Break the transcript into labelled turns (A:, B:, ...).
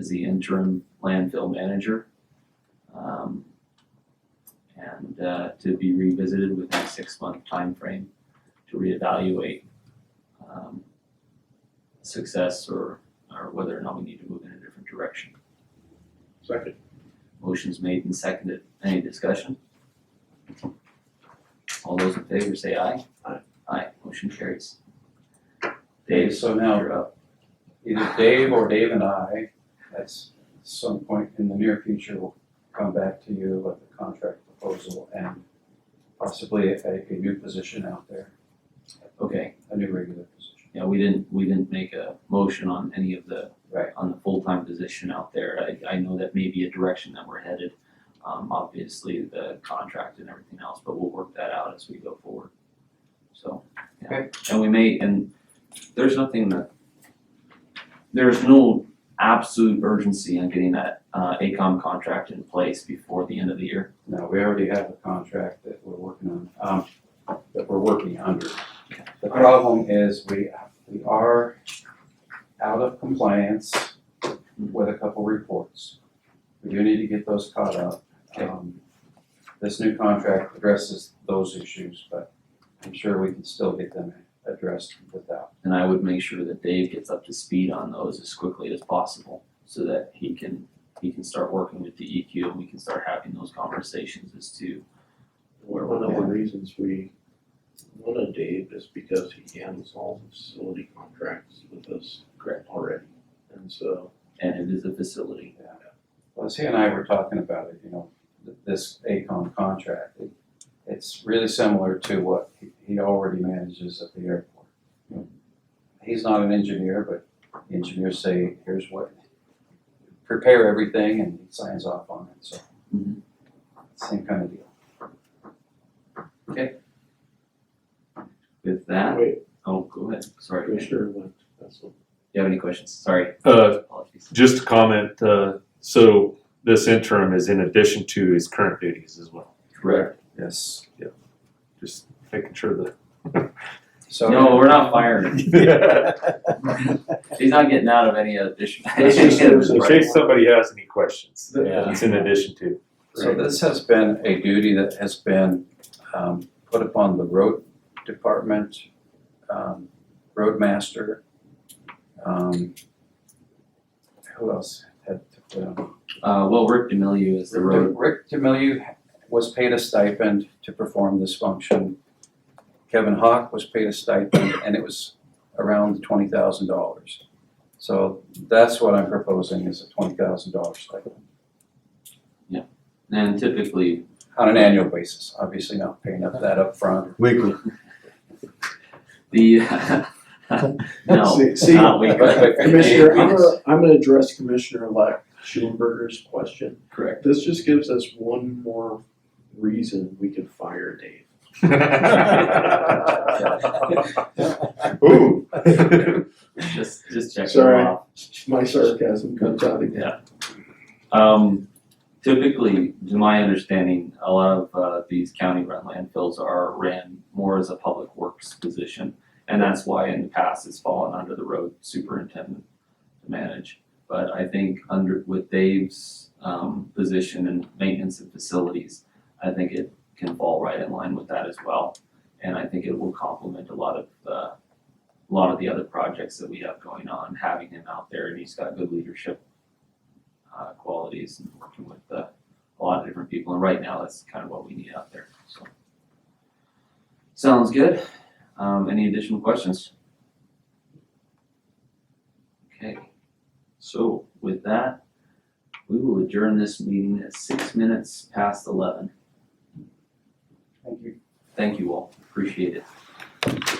A: as the interim landfill manager. Um, And uh, to be revisited within a six-month time frame to reevaluate um, success or, or whether or not we need to move in a different direction.
B: Second.
A: Motion's made and seconded. Any discussion? All those in favor say aye.
B: Aye.
A: Aye, motion carries.
C: Dave,
A: Dave,
C: so now
A: you're up.
C: either Dave or Dave and I, at some point in the near future, will come back to you with a contract proposal and possibly a, a new position out there,
A: Okay.
C: a new regular position.
A: Yeah, we didn't, we didn't make a motion on any of the.
C: Right.
A: On the full-time position out there. I, I know that may be a direction that we're headed. Um, obviously, the contract and everything else, but we'll work that out as we go forward. So, yeah. And we may, and there's nothing that, there's no absolute urgency on getting that, uh, ACOM contract in place before the end of the year.
C: No, we already have a contract that we're working on, um, that we're working under. The problem is we, we are out of compliance with a couple reports. We do need to get those caught up.
A: Okay.
C: Um, This new contract addresses those issues, but I'm sure we can still get them addressed without.
A: And I would make sure that Dave gets up to speed on those as quickly as possible so that he can, he can start working with the EQ and we can start having those conversations as to where
B: One
A: we're
B: of the
A: going.
B: reasons we wanted Dave is because he handles all the facility contracts with us
A: Correct.
B: already. And so,
A: And it is a facility.
C: Plus, he and I were talking about it, you know, th- this ACOM contract. It- It's really similar to what he- he already manages at the airport. He's not an engineer, but the engineers say, here's what, prepare everything and he signs off on it, so.
A: Mhm.
C: Same kind of deal.
A: With that,
B: wait,
A: oh, go ahead. Sorry. Do
B: Commissioner went, that's what.
A: you have any questions? Sorry.
D: Uh,
A: Apologies.
D: just a comment, uh, so this interim is in addition to his current duties as well.
A: Correct.
C: Yes.
D: Just making sure
C: So.
A: No, we're not firing. him.
D: that,
A: He's not getting out of any addition.
D: in case somebody has any questions,
C: Yeah.
D: it's in addition to.
C: So this has been a duty that has been um, put upon the road department, um, roadmaster. um, Who else had to put on?
A: Uh, well, Rick Demilieu is the road.
C: Rick Demilieu was paid a stipend to perform this function. Kevin Hawk was paid a stipend, and it was around twenty thousand dollars. So that's what I'm proposing is a twenty thousand dollar stipend
A: And typically,
C: on an annual basis, obviously not paying up that upfront
E: Weekly.
A: the, no,
E: See, see,
A: not we.
E: Commissioner,
C: Commissioner,
E: I'm gonna, I'm gonna address Commissioner-elect Schulenberger's question.
A: Correct.
B: This just gives us one more reason we could fire Dave.
D: Ooh.
A: Just, just check them
B: Sorry.
A: off.
B: My sarcasm comes out again.
A: Um, typically, to my understanding, a lot of uh, these county-run landfills are ran more as a public works position, and that's why in the past it's fallen under the road superintendent to manage. But I think under with Dave's um, position in maintenance of facilities, I think it can fall right in line with that as well, and I think it will complement a lot of uh, a lot of the other projects that we have going on. Having him out there, and he's got good leadership uh, qualities and working with uh, a lot of different people. And right now, that's kind of what we need out there. So, sounds good. Um, any additional questions? Okay. So with that, we will adjourn this meeting at six minutes past eleven.
C: Thank you.
A: Thank you all. Appreciate it.